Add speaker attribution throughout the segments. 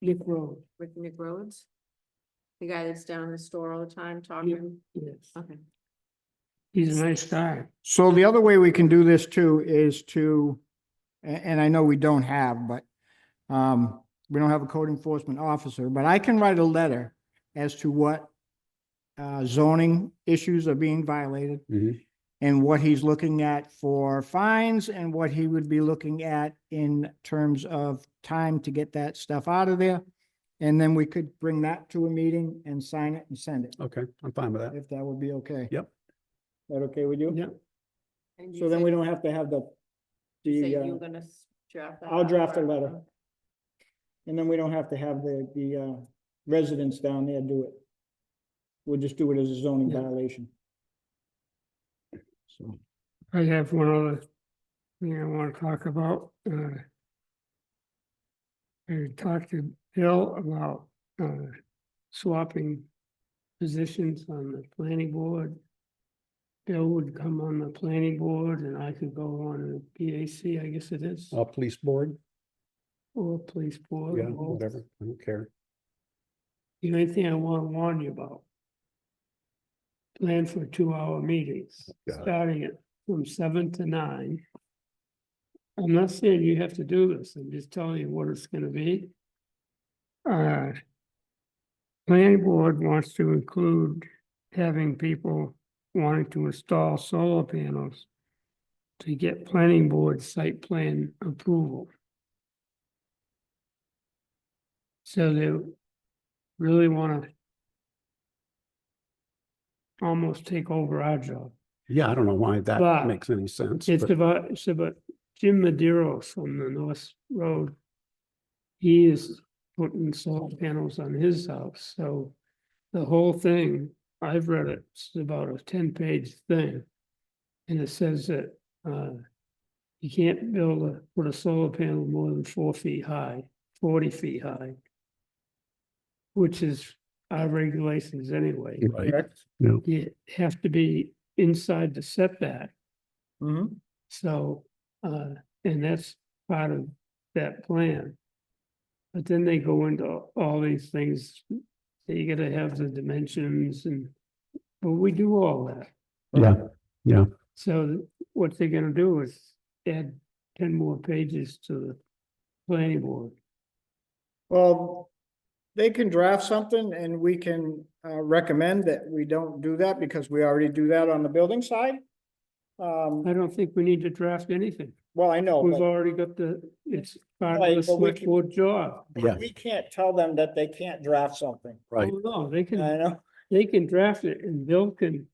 Speaker 1: Nick Road,
Speaker 2: with Nick Rhodes? The guy that's down in the store all the time talking?
Speaker 1: yes.
Speaker 2: Okay.
Speaker 1: He's a nice guy.
Speaker 3: So the other way we can do this too is to, a- and, I know we don't have, but um, we don't have a code enforcement officer, but I can write a letter as to what uh, zoning issues are being violated
Speaker 4: Mhm.
Speaker 3: and what he's looking at for fines and what he would be looking at in terms of time to get that stuff out of there. And then we could bring that to a meeting and sign it and send it,
Speaker 4: Okay, I'm fine with that.
Speaker 3: if that would be okay.
Speaker 4: Yep.
Speaker 3: That okay with you?
Speaker 4: Yeah.
Speaker 2: And you
Speaker 3: So then
Speaker 2: said-
Speaker 3: we don't have to have the,
Speaker 2: you said
Speaker 3: the,
Speaker 2: you were
Speaker 3: uh,
Speaker 2: gonna s- draft that
Speaker 3: I'll
Speaker 2: up,
Speaker 3: draft a
Speaker 2: right?
Speaker 3: letter. and then we don't have to have the, the, uh, residents down there do it. We'll just do it as a zoning
Speaker 1: Yeah.
Speaker 3: violation. So,
Speaker 1: I have one other thing I want to talk about. uh, I talked to Bill about uh, swapping positions on the planning board. Bill would come on the planning board and I could go on the BAC, I guess it is,
Speaker 4: Uh, police board,
Speaker 1: or police board.
Speaker 4: yeah,
Speaker 1: both.
Speaker 4: whatever, I don't care.
Speaker 1: The only thing I want to warn you about. Plan for two-hour meetings,
Speaker 4: Got it.
Speaker 1: starting at from seven to nine. I'm not saying you have to do this, I'm just telling you what it's gonna be. Uh. Planning board wants to include having people wanting to install solar panels. To get planning board site plan approval. So they really wanna almost take over our job.
Speaker 4: Yeah, I don't know why
Speaker 1: But
Speaker 4: that makes any sense.
Speaker 1: It's
Speaker 4: but-
Speaker 1: about, it's about Jim Maderos on the North Road. He is putting solar panels on his house, so the whole thing, I've read it, it's about a ten-page thing. And it says that, uh, you can't build a, put a solar panel more than four feet high, forty feet high. Which is our regulations anyway.
Speaker 4: Right. No.
Speaker 1: You have to be inside the setback.
Speaker 3: mhm.
Speaker 1: So, uh, and that's part of that plan. But then they go into a- all these things, that you gotta have the dimensions and, but we do all that.
Speaker 4: Yeah, yeah.
Speaker 1: So what they're gonna do is add ten more pages to the planning board.
Speaker 3: Well, they can draft something and we can, uh, recommend that we don't do that because we already do that on the building side.
Speaker 1: I
Speaker 3: Um,
Speaker 1: don't think we need to draft anything.
Speaker 3: well, I know,
Speaker 1: We've
Speaker 3: but
Speaker 1: already got the, it's part of
Speaker 3: Oh, Right,
Speaker 1: the
Speaker 3: but we
Speaker 1: select
Speaker 3: can-
Speaker 1: board job.
Speaker 4: Yeah,
Speaker 3: we can't tell them that they can't draft something.
Speaker 4: right.
Speaker 1: Oh, No, they can,
Speaker 3: I know,
Speaker 1: they can draft it and Bill can,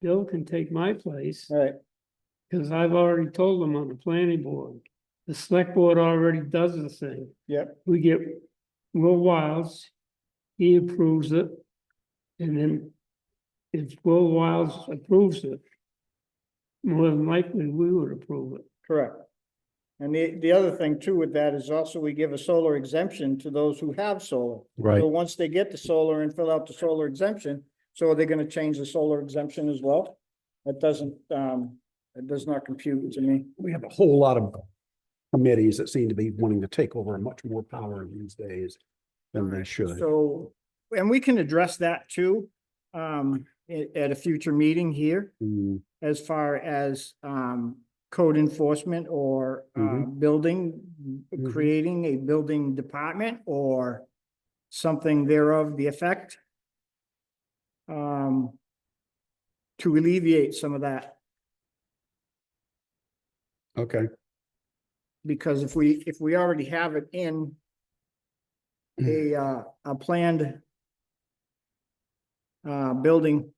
Speaker 1: Bill can take my place.
Speaker 3: right,
Speaker 1: Cause I've already told them on the planning board, the select board already does the thing.
Speaker 3: Yep.
Speaker 1: We get Will Wiles, he approves it. And then if Will Wiles approves it, more than likely we would approve it.
Speaker 3: correct. And the, the other thing too with that is also we give a solar exemption to those who have solar.
Speaker 4: Right,
Speaker 3: So once they get the solar and fill out the solar exemption, so are they gonna change the solar exemption as well? That doesn't, um, it does not compute to me.
Speaker 4: we have a whole lot of committees that seem to be wanting to take over much more power these days than they should.
Speaker 3: So, and we can address that too, um, at, at a future meeting here
Speaker 4: Mm,
Speaker 3: as far as, um, code enforcement or, uh,
Speaker 4: Mhm.
Speaker 3: building,
Speaker 4: Mhm.
Speaker 3: creating a building department or something thereof, the effect. Um, to alleviate some of that.
Speaker 4: Okay,
Speaker 3: Because if we, if we already have it in a, uh, a planned uh, building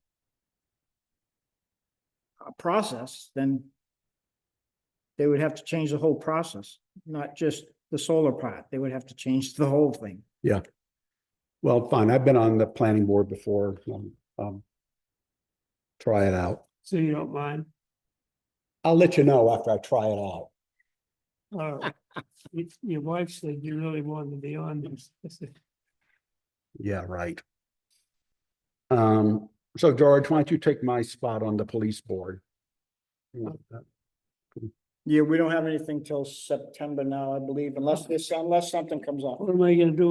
Speaker 3: uh, process, then they would have to change the whole process, not just the solar part. They would have to change the whole thing.
Speaker 4: well, fine. I've been on the planning board before. um, um, Try it out.
Speaker 1: So you don't mind?
Speaker 4: I'll let you know after I try it out.
Speaker 1: All right. Your- Your wife said you really wanted to be on this. I said,
Speaker 4: Yeah, right. Um, so George, why don't you take my spot on the police board?
Speaker 3: Yeah, we don't have anything till September now, I believe, unless this, unless something comes up.
Speaker 1: What am I gonna do